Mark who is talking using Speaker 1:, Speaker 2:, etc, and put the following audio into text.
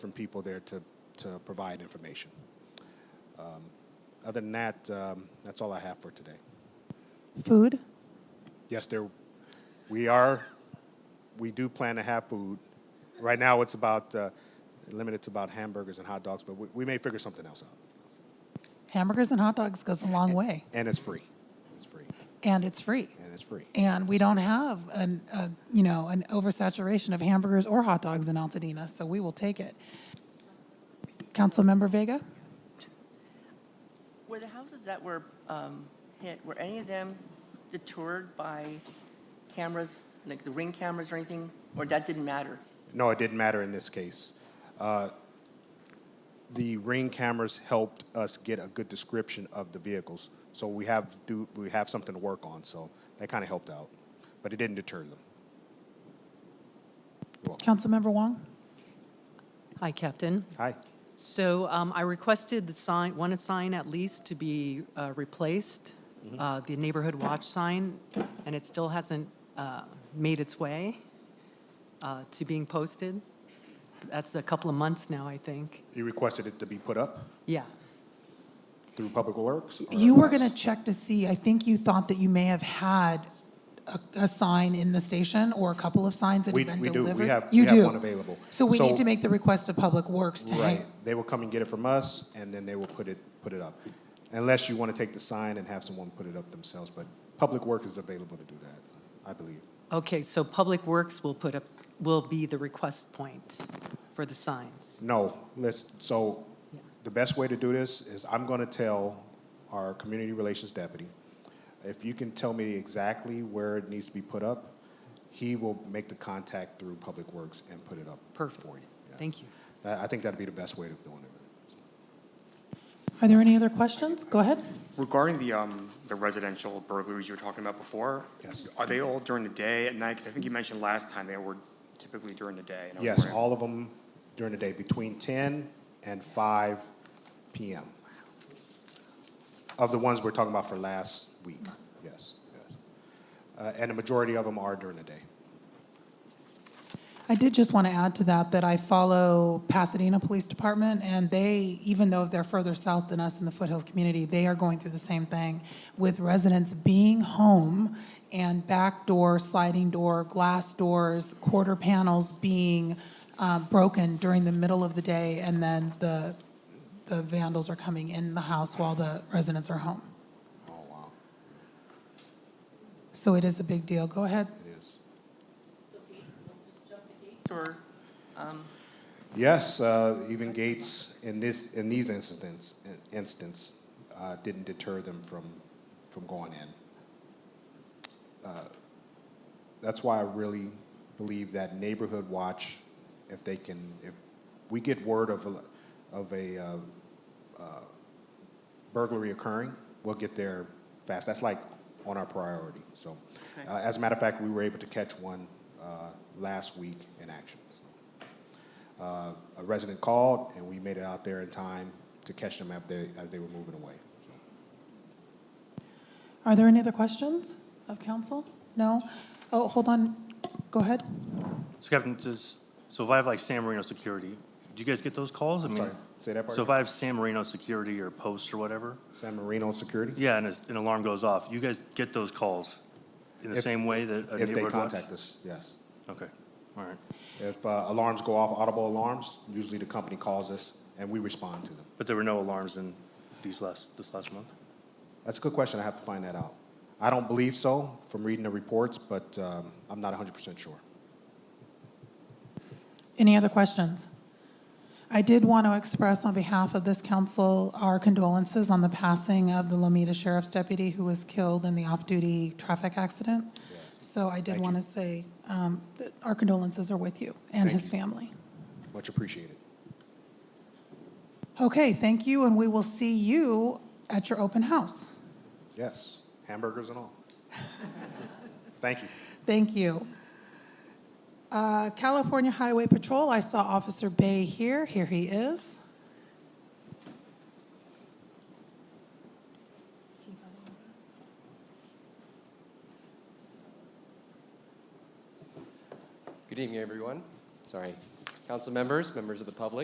Speaker 1: different people there to, to provide information. Um, Other than that, um, that's all I have for today.
Speaker 2: Food?
Speaker 1: Yes, there, we are, we do plan to have food. Right now, it's about, uh, limited to about hamburgers and hot dogs, but we, we may figure something else out.
Speaker 2: Hamburgers and hot dogs goes a long way,
Speaker 1: And it's free. It's free.
Speaker 2: and it's free.
Speaker 1: And it's free.
Speaker 2: And we don't have an, a, you know, an oversaturation of hamburgers or hot dogs in Altadena, so we will take it. Councilmember Vega?
Speaker 3: Were the houses that were um, hit, were any of them deterred by cameras, like the ring cameras or anything? Or that didn't matter?
Speaker 1: No, it didn't matter in this case. Uh, The ring cameras helped us get a good description of the vehicles. So we have, do, we have something to work on, so that kind of helped out. But it didn't deter them.
Speaker 2: Councilmember Wong?
Speaker 4: Hi, Captain.
Speaker 1: Hi.
Speaker 4: So um, I requested the sign, one sign at least to be uh, replaced, uh, the neighborhood watch sign, and it still hasn't uh, made its way uh, to being posted. That's a couple of months now, I think.
Speaker 1: You requested it to be put up
Speaker 4: Yeah.
Speaker 1: through Public Works? or
Speaker 2: You were
Speaker 1: us?
Speaker 2: going to check to see, I think you thought that you may have had a, a sign in the station or a couple of signs that
Speaker 1: We-
Speaker 2: have been
Speaker 1: we do. We
Speaker 2: delivered.
Speaker 1: have-
Speaker 2: You
Speaker 1: we have
Speaker 2: do.
Speaker 1: one available.
Speaker 2: So we need
Speaker 1: So-
Speaker 2: to make the request of Public Works to hang.
Speaker 1: Right. They will come and get it from us, and then they will put it, put it up. Unless you want to take the sign and have someone put it up themselves, but Public Works is available to do that, I believe.
Speaker 4: Okay, so Public Works will put up, will be the request point for the signs.
Speaker 1: No, let's, so
Speaker 4: Yeah.
Speaker 1: the best way to do this is I'm going to tell our community relations deputy, if you can tell me exactly where it needs to be put up, he will make the contact through Public Works and put it up
Speaker 4: Perfect.
Speaker 1: for you. Yeah.
Speaker 4: Thank you.
Speaker 1: I I think that'd be the best way of doing it.
Speaker 2: Are there any other questions? Go ahead.
Speaker 5: Regarding the, um, the residential burglaries you were talking about before?
Speaker 1: Yes.
Speaker 5: Are they all during the day, at night? Because I think you mentioned last time they were typically during the day. and I was
Speaker 1: Yes,
Speaker 5: wondering-
Speaker 1: all of them during the day, between 10 and 5 PM. Of the ones we're talking about for last week, yes, yes. Uh, And the majority of them are during the day.
Speaker 2: I did just want to add to that, that I follow Pasadena Police Department, and they, even though they're further south than us in the foothills community, they are going through the same thing with residents being home and back door, sliding door, glass doors, quarter panels being uh, broken during the middle of the day, and then the, the vandals are coming in the house while the residents are home.
Speaker 1: Oh, wow,
Speaker 2: So it is a big deal. Go ahead.
Speaker 1: it is.
Speaker 3: Or,
Speaker 1: Yes, uh, even Gates, in this, in these incidents, instance, uh, didn't deter them from, from going in. Uh, That's why I really believe that neighborhood watch, if they can, if we get word of, a- of a uh, uh, burglary occurring, we'll get there fast. That's like on our priority, so.
Speaker 3: Okay.
Speaker 1: uh, As a matter of fact, we were able to catch one uh, last week in action, so uh, a resident called, and we made it out there in time to catch them as they, as they were moving away. So,
Speaker 2: Are there any other questions of council? No? Oh, hold on. Go ahead.
Speaker 6: So Captain, does, so if I have like San Marino Security, do you guys get those calls? I mean,
Speaker 1: sorry, say that part
Speaker 6: So if
Speaker 1: again?
Speaker 6: I have San Marino Security or Post or whatever,
Speaker 1: San Marino Security,
Speaker 6: yeah, and it's- an alarm goes off, you guys get those calls in the
Speaker 1: If-
Speaker 6: same way that a
Speaker 1: if they
Speaker 6: neighborhood watch?
Speaker 1: contact us, yes.
Speaker 6: Okay, all right.
Speaker 1: If uh, alarms go off, audible alarms, usually the company calls us, and we respond to them.
Speaker 6: But there were no alarms in these last, this last month?
Speaker 1: That's a good question, I have to find that out. I don't believe so from reading the reports, but um, I'm not 100% sure.
Speaker 2: Any other questions? I did want to express on behalf of this council our condolences on the passing of the Lomita Sheriff's Deputy who was killed in the off-duty traffic accident. So I did
Speaker 1: Thank
Speaker 2: want to
Speaker 1: you.
Speaker 2: say um, that our condolences are with you and
Speaker 1: Thank
Speaker 2: his
Speaker 1: you.
Speaker 2: family.
Speaker 1: Much appreciated.
Speaker 2: Okay, thank you, and we will see you at your open house.
Speaker 1: Yes, hamburgers and all. Thank you.
Speaker 2: Thank you. Uh, California Highway Patrol, I saw Officer Bay here. Here he is.
Speaker 7: Good evening, everyone. Sorry. Council members, members of the public.